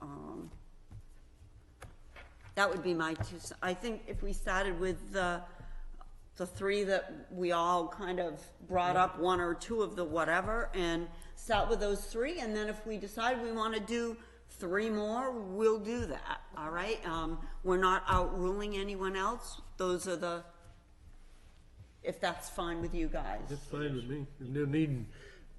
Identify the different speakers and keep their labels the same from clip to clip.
Speaker 1: Um, that would be my two, c- I think if we started with the, the three that we all kind of brought up, one or two of the whatever, and start with those three, and then if we decide we wanna do three more, we'll do that, all right? Um, we're not outruling anyone else, those are the, if that's fine with you guys.
Speaker 2: That's fine with me. There's no need,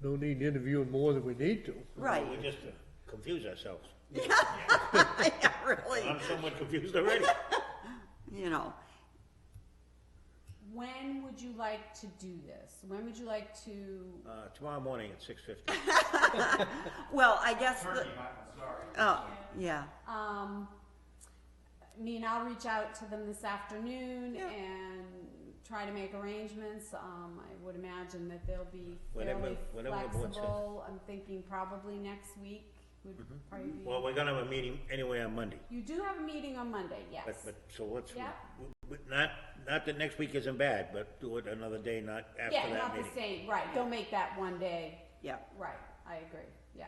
Speaker 2: no need interviewing more than we need to.
Speaker 1: Right,
Speaker 3: We just uh, confuse ourselves.
Speaker 1: yeah, really,
Speaker 3: I'm somewhat confused already.
Speaker 1: you know,
Speaker 4: When would you like to do this? When would you like to?
Speaker 3: Uh, tomorrow morning at six fifty.
Speaker 1: well, I guess the, oh, yeah,
Speaker 4: Um, I mean, I'll reach out to them this afternoon
Speaker 1: Yeah.
Speaker 4: and try to make arrangements. Um, I would imagine that they'll be
Speaker 3: Whenever-
Speaker 4: fairly
Speaker 3: whenever the board says. Mm-hmm.
Speaker 4: flexible. I'm thinking probably next week would probably be.
Speaker 3: Well, we're gonna have a meeting anyway on Monday,
Speaker 4: You do have a meeting on Monday, yes.
Speaker 3: but, but, so let's,
Speaker 4: Yeah.
Speaker 3: we- we- not, not that next week isn't bad, but do it another day, not after
Speaker 4: Yeah,
Speaker 3: that
Speaker 4: not the
Speaker 3: meeting.
Speaker 4: same, right, don't make that one day,
Speaker 1: yeah.
Speaker 4: right, I agree, yeah,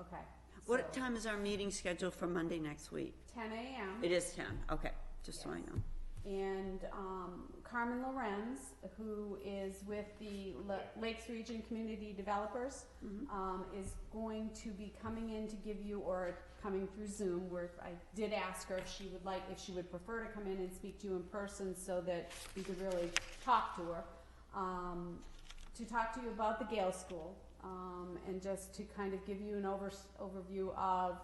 Speaker 4: okay.
Speaker 1: What
Speaker 4: So,
Speaker 1: time is our meeting scheduled for Monday next week?
Speaker 4: Ten AM.
Speaker 1: It is ten, okay, just so I know.
Speaker 4: and um, Carmen Lorenz, who is with the Le- Lakes Region Community Developers, um, is going to be coming in to give you, or coming through Zoom, where I did ask her if she would like, if she would prefer to come in and speak to you in person so that you could really talk to her, um, to talk to you about the Gale School, um, and just to kind of give you an overs overview of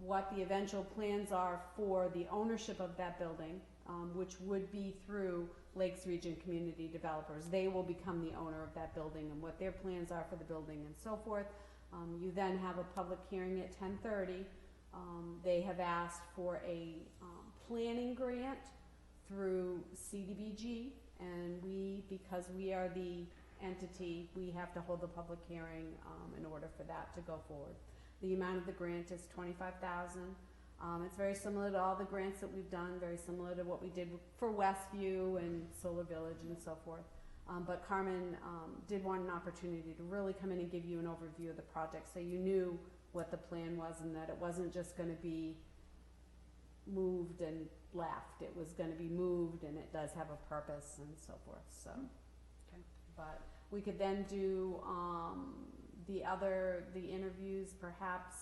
Speaker 4: what the eventual plans are for the ownership of that building, um, which would be through Lakes Region Community Developers. They will become the owner of that building and what their plans are for the building and so forth. Um, you then have a public hearing at ten thirty. Um, they have asked for a, um, planning grant through CDBG, and we, because we are the entity, we have to hold the public hearing, um, in order for that to go forward. The amount of the grant is twenty-five thousand. Um, it's very similar to all the grants that we've done, very similar to what we did for Westview and Solar Village and so forth. Um, but Carmen, um, did want an opportunity to really come in and give you an overview of the project, so you knew what the plan was and that it wasn't just gonna be moved and left. It was gonna be moved and it does have a purpose and so forth, so. But we could then do, um, the other, the interviews perhaps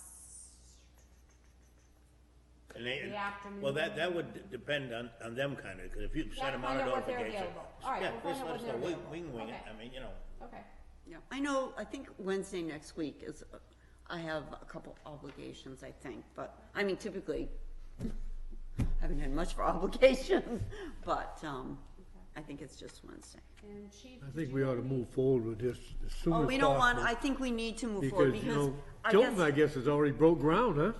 Speaker 3: And they-
Speaker 4: the afternoon.
Speaker 3: Well, that, that would d- depend on, on them kinda, cause if you send
Speaker 4: Yeah,
Speaker 3: them out a
Speaker 4: find out what they're
Speaker 3: notification.
Speaker 4: available. All right,
Speaker 3: yeah,
Speaker 4: we'll find
Speaker 3: just
Speaker 4: out
Speaker 3: let
Speaker 4: what
Speaker 3: us
Speaker 4: they're
Speaker 3: know. We-
Speaker 4: available.
Speaker 3: We can wing it,
Speaker 4: Okay.
Speaker 3: I mean, you know,
Speaker 4: Okay,
Speaker 1: Yeah, I know, I think Wednesday next week is, uh, I have a couple obligations, I think, but, I mean, typically, haven't had much for obligations, but, um, I think it's just Wednesday.
Speaker 4: and Chief.
Speaker 2: I
Speaker 4: did
Speaker 2: think
Speaker 4: you
Speaker 2: we
Speaker 4: have
Speaker 2: ought to
Speaker 4: any-
Speaker 2: move forward with this as soon as
Speaker 1: Oh,
Speaker 2: possible.
Speaker 1: we don't want, I think we need to move forward,
Speaker 2: Because, you
Speaker 1: because
Speaker 2: know,
Speaker 1: I
Speaker 2: Tilton, I
Speaker 1: guess,
Speaker 2: guess, has already broke ground, huh?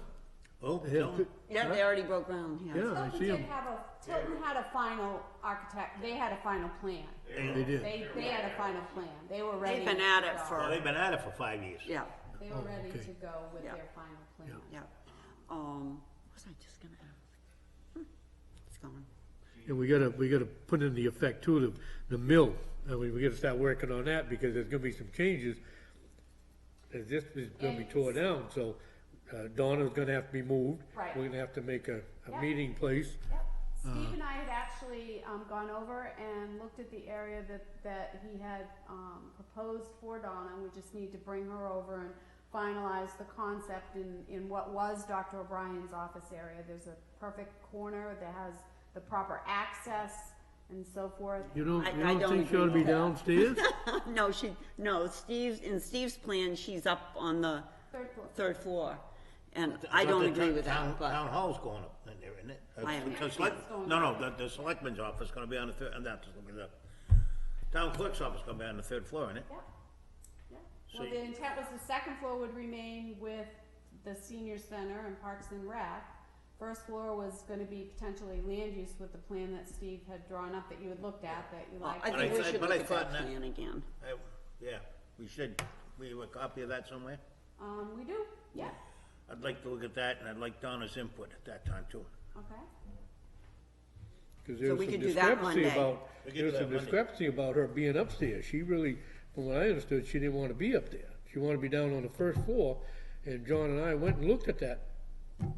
Speaker 3: oh,
Speaker 2: They have
Speaker 3: don't,
Speaker 2: to-
Speaker 1: yeah, they already broke ground, yeah.
Speaker 2: Yeah. I
Speaker 4: Tilton
Speaker 2: see
Speaker 4: did
Speaker 2: 'em.
Speaker 4: have a, Tilton had a final architect, they had a final plan.
Speaker 2: They did.
Speaker 4: They, they had a final plan. They were ready.
Speaker 1: They've been at
Speaker 4: to
Speaker 1: it
Speaker 4: go.
Speaker 3: well,
Speaker 1: for,
Speaker 3: they've been at it for five years.
Speaker 1: yeah,
Speaker 4: They
Speaker 2: Oh,
Speaker 4: were ready
Speaker 2: okay.
Speaker 4: to go with
Speaker 1: Yeah.
Speaker 4: their final plan.
Speaker 1: yeah. Um, what was I just gonna ask? Hmm, It's gone.
Speaker 2: And we gotta, we gotta put in the effect too, the, the mill, and we, we gotta start working on that, because there's gonna be some changes. As this is gonna be tore down, so, uh, Donna's gonna have to be moved.
Speaker 4: Right.
Speaker 2: We're gonna have to make a, a
Speaker 4: Yeah.
Speaker 2: meeting place.
Speaker 4: Yep. Steve and I had actually um, gone over and looked at the area that, that he had um, proposed for Donna. We just need to bring her over and finalize the concept in, in what was Dr. O'Brien's office area. There's a perfect corner that has the proper access and so forth.
Speaker 2: You don't,
Speaker 1: I-
Speaker 2: you
Speaker 1: I
Speaker 2: don't
Speaker 1: don't
Speaker 2: think she ought to
Speaker 1: agree
Speaker 2: be
Speaker 1: with that.
Speaker 2: downstairs?
Speaker 1: No, she, no, Steve's, in Steve's plan, she's up on the
Speaker 4: Third floor.
Speaker 1: third floor. And
Speaker 3: Th-
Speaker 1: I
Speaker 3: thought
Speaker 1: don't
Speaker 3: the
Speaker 1: agree
Speaker 3: town-
Speaker 1: with
Speaker 3: town-
Speaker 1: that,
Speaker 3: Town
Speaker 1: but,
Speaker 3: hall's going up in there, isn't it? Uh,
Speaker 1: I am.
Speaker 3: the select- No, no, the, the selectman's office gonna be on the third, and that's, the town clerk's office gonna be on the third floor, isn't it?
Speaker 4: Yeah, yeah.
Speaker 3: So
Speaker 4: Well,
Speaker 3: you-
Speaker 4: the intent was the second floor would remain with the senior center and Parks and Rec. First floor was gonna be potentially land use with the plan that Steve had drawn up that you had looked at, that you
Speaker 1: well,
Speaker 4: liked.
Speaker 1: I
Speaker 3: But
Speaker 1: think
Speaker 3: I
Speaker 1: we
Speaker 3: thought-
Speaker 1: should
Speaker 3: but
Speaker 1: look
Speaker 3: I
Speaker 1: at
Speaker 3: thought
Speaker 1: that
Speaker 3: that-
Speaker 1: plan again.
Speaker 3: I- Yeah, we should, we have a copy of that somewhere?
Speaker 4: Um, we do, yeah,
Speaker 3: I'd like to look at that, and I'd like Donna's input at that time too.
Speaker 4: okay.
Speaker 2: Cause there was
Speaker 1: we
Speaker 2: some
Speaker 1: could do that
Speaker 2: discrepancy
Speaker 1: Monday.
Speaker 2: about,
Speaker 3: We could
Speaker 2: there
Speaker 3: do
Speaker 2: was
Speaker 3: that
Speaker 2: some
Speaker 3: Monday.
Speaker 2: discrepancy about her being upstairs. She really, from what I understood, she didn't wanna be up there. She wanted to be down on the first floor, and John and I went and looked at that